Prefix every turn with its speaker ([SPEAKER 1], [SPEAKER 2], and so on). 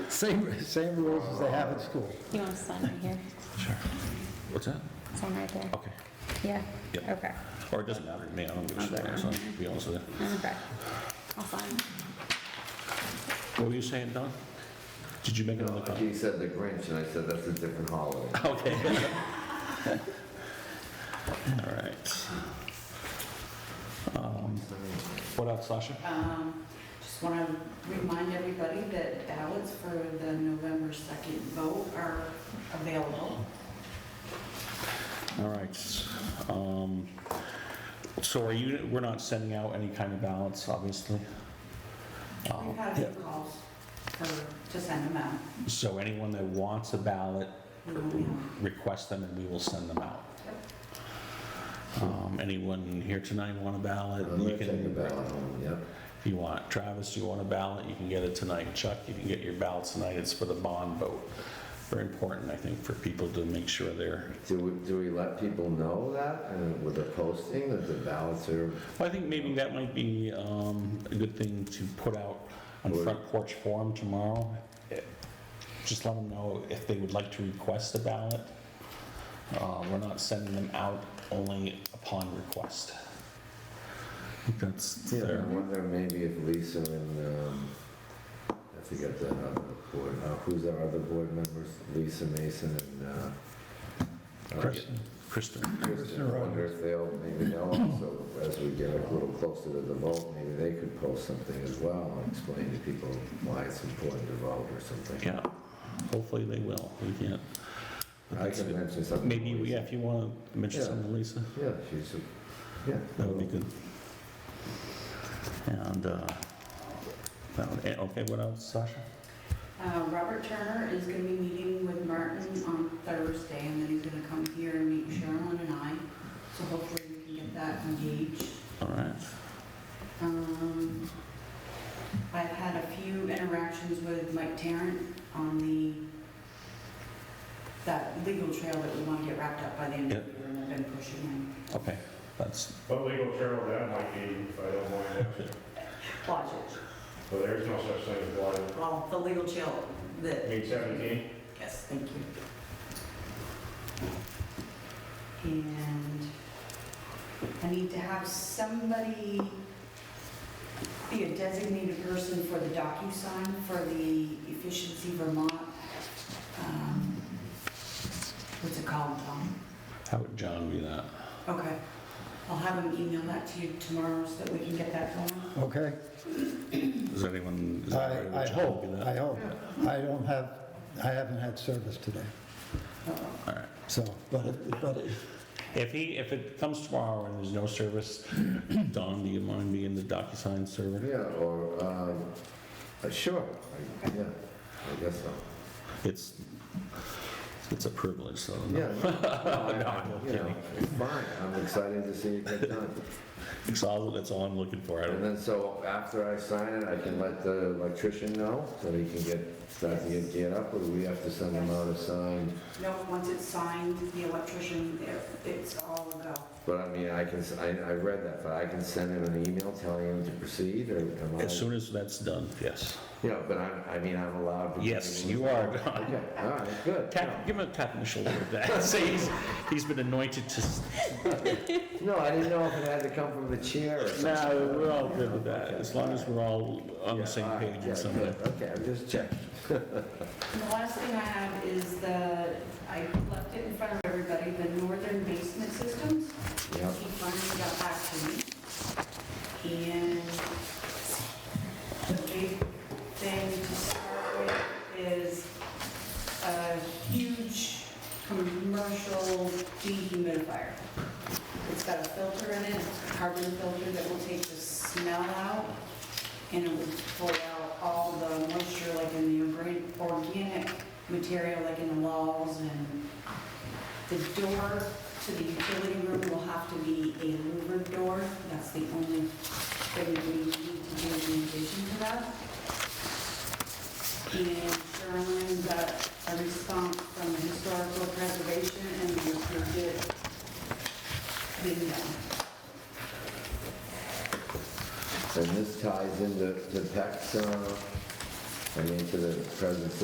[SPEAKER 1] Same, same rules as they have at school.
[SPEAKER 2] You want to sign right here?
[SPEAKER 3] What's that?
[SPEAKER 2] Sign right there.
[SPEAKER 3] Okay.
[SPEAKER 2] Yeah?
[SPEAKER 3] Yep.
[SPEAKER 2] Okay.
[SPEAKER 3] Or it doesn't matter to me, I don't give a shit, so, to be honest with you.
[SPEAKER 2] Okay. I'll sign.
[SPEAKER 3] What were you saying, Don? Did you make another copy?
[SPEAKER 4] He said the Grinch, and I said that's a different holiday.
[SPEAKER 3] Okay. All right. Um, What else, Sasha?
[SPEAKER 5] Um, Just want to remind everybody that ballots for the November 2nd vote are available.
[SPEAKER 3] All right. um, So are you, we're not sending out any kind of ballots, obviously? Oh, Um,
[SPEAKER 5] We've had a few calls for, to send them out.
[SPEAKER 3] So anyone that wants a ballot,
[SPEAKER 5] We will mail.
[SPEAKER 3] request them and we will send them out. Um, Anyone here tonight want a ballot?
[SPEAKER 4] I'm
[SPEAKER 3] You
[SPEAKER 4] gonna
[SPEAKER 3] can-
[SPEAKER 4] take a ballot home, yep.
[SPEAKER 3] If you want, Travis, you want a ballot, you can get it tonight. Chuck, you can get your ballot tonight, it's for the bond vote. Very important, I think, for people to make sure they're,
[SPEAKER 4] Do we, do we let people know that, and with the posting, that the ballots are,
[SPEAKER 3] Well, I think maybe that might be um, a good thing to put out on Front Porch Forum tomorrow. Just let them know if they would like to request a ballot. Uh, We're not sending them out only upon request. I think That's
[SPEAKER 4] I
[SPEAKER 3] there.
[SPEAKER 4] wonder maybe if Lisa and, um, I forget that other board, uh, who's our other board members? Lisa Mason and, uh,
[SPEAKER 3] Kristen. Kristen.
[SPEAKER 4] Kristen, I wonder if they'll, maybe they'll also, as we get a little closer to the vote, maybe they could post something as well, and explain to people why it's important to vote or something.
[SPEAKER 3] Yeah, hopefully they will. We can't.
[SPEAKER 4] I can mention something.
[SPEAKER 3] Maybe, yeah, if you want to mention
[SPEAKER 4] Yeah.
[SPEAKER 3] something, to Lisa,
[SPEAKER 4] Yeah, she's, a- yeah.
[SPEAKER 3] that would be good. And, uh, that- eh, okay, what else, Sasha?
[SPEAKER 5] Uh, Robert Turner is going to be meeting with Martin on Thursday, and then he's going to come here and meet Sherilyn and I. So hopefully we can get that engaged.
[SPEAKER 3] All right.
[SPEAKER 5] Um, I've had a few interactions with Mike Tarrant on the, that legal trail that we want to get wrapped up by the end of the year, and I've been pushing him.
[SPEAKER 3] Okay, that's,
[SPEAKER 6] What legal peril that might be, if I don't mind asking,
[SPEAKER 5] Lodge
[SPEAKER 6] but there's no such thing as blight.
[SPEAKER 5] Well, the legal trail,
[SPEAKER 6] I
[SPEAKER 5] the,
[SPEAKER 6] mean, 17,
[SPEAKER 5] yes, thank you. And I need to have somebody be a designated person for the DocuSign for the Efficiency Vermont. um, What's it called, Tom?
[SPEAKER 3] how would John be that?
[SPEAKER 5] Okay. I'll have him email that to you tomorrow so that we can get that going.
[SPEAKER 1] Okay?
[SPEAKER 3] Is anyone? is that right?
[SPEAKER 1] I, I
[SPEAKER 3] Would John
[SPEAKER 1] hope,
[SPEAKER 3] be that?
[SPEAKER 1] I hope. I don't have, I haven't had service today,
[SPEAKER 3] All right.
[SPEAKER 1] so, but, it- but it-
[SPEAKER 3] If he, if it comes tomorrow and there's no service, Don, do you mind being the DocuSign server?
[SPEAKER 4] Yeah, or, um, uh, sure, I- yeah, I guess so.
[SPEAKER 3] It's, it's a privilege, so.
[SPEAKER 4] Yeah.
[SPEAKER 3] No, I'm
[SPEAKER 4] You know,
[SPEAKER 3] kidding.
[SPEAKER 4] it's Fine, I'm excited to see it get done.
[SPEAKER 3] It's all, that's all I'm looking for. I
[SPEAKER 4] And
[SPEAKER 3] don't,
[SPEAKER 4] then, so after I sign it, I can let the electrician know, so he can get, start to get geared up, or do we have to send him out a sign?
[SPEAKER 5] No, once it's signed, the electrician, it's all go.
[SPEAKER 4] But I mean, I can, s- I, I read that, but I can send him an email telling him to proceed, or am I?
[SPEAKER 3] as soon as that's done, yes.
[SPEAKER 4] Yeah, but I'm, I mean, I'm allowed to.
[SPEAKER 3] Yes, you are, Don.
[SPEAKER 4] Okay, all right, good.
[SPEAKER 3] Tap, give him a tap on the shoulder with that. Say he's, he's been anointed to. s-
[SPEAKER 4] No, I didn't know if it had to come from the chair or something.
[SPEAKER 3] No, we're all good with that, as long as we're all on the
[SPEAKER 4] All
[SPEAKER 3] same
[SPEAKER 4] right,
[SPEAKER 3] page
[SPEAKER 4] yeah,
[SPEAKER 3] in some way.
[SPEAKER 4] good. Okay, I'm just checking.
[SPEAKER 5] And the last thing I have is the, I left it in front of everybody, the northern basement systems.
[SPEAKER 4] Yeah.
[SPEAKER 5] He finally got back to me. And the big thing to start with is a huge commercial dehumidifier. It's got a filter in it, it's a carbon filter that will take the smell out, and it will pull out all the moisture, like in the organ- organic material, like in the walls and the door to the utility room will have to be a louvered door. That's the only thing we need to do in addition to that. And Sherlin got a response from the historical preservation and we approved it. Bingo.
[SPEAKER 4] And this ties into, to PEC's, uh, I mean, to the present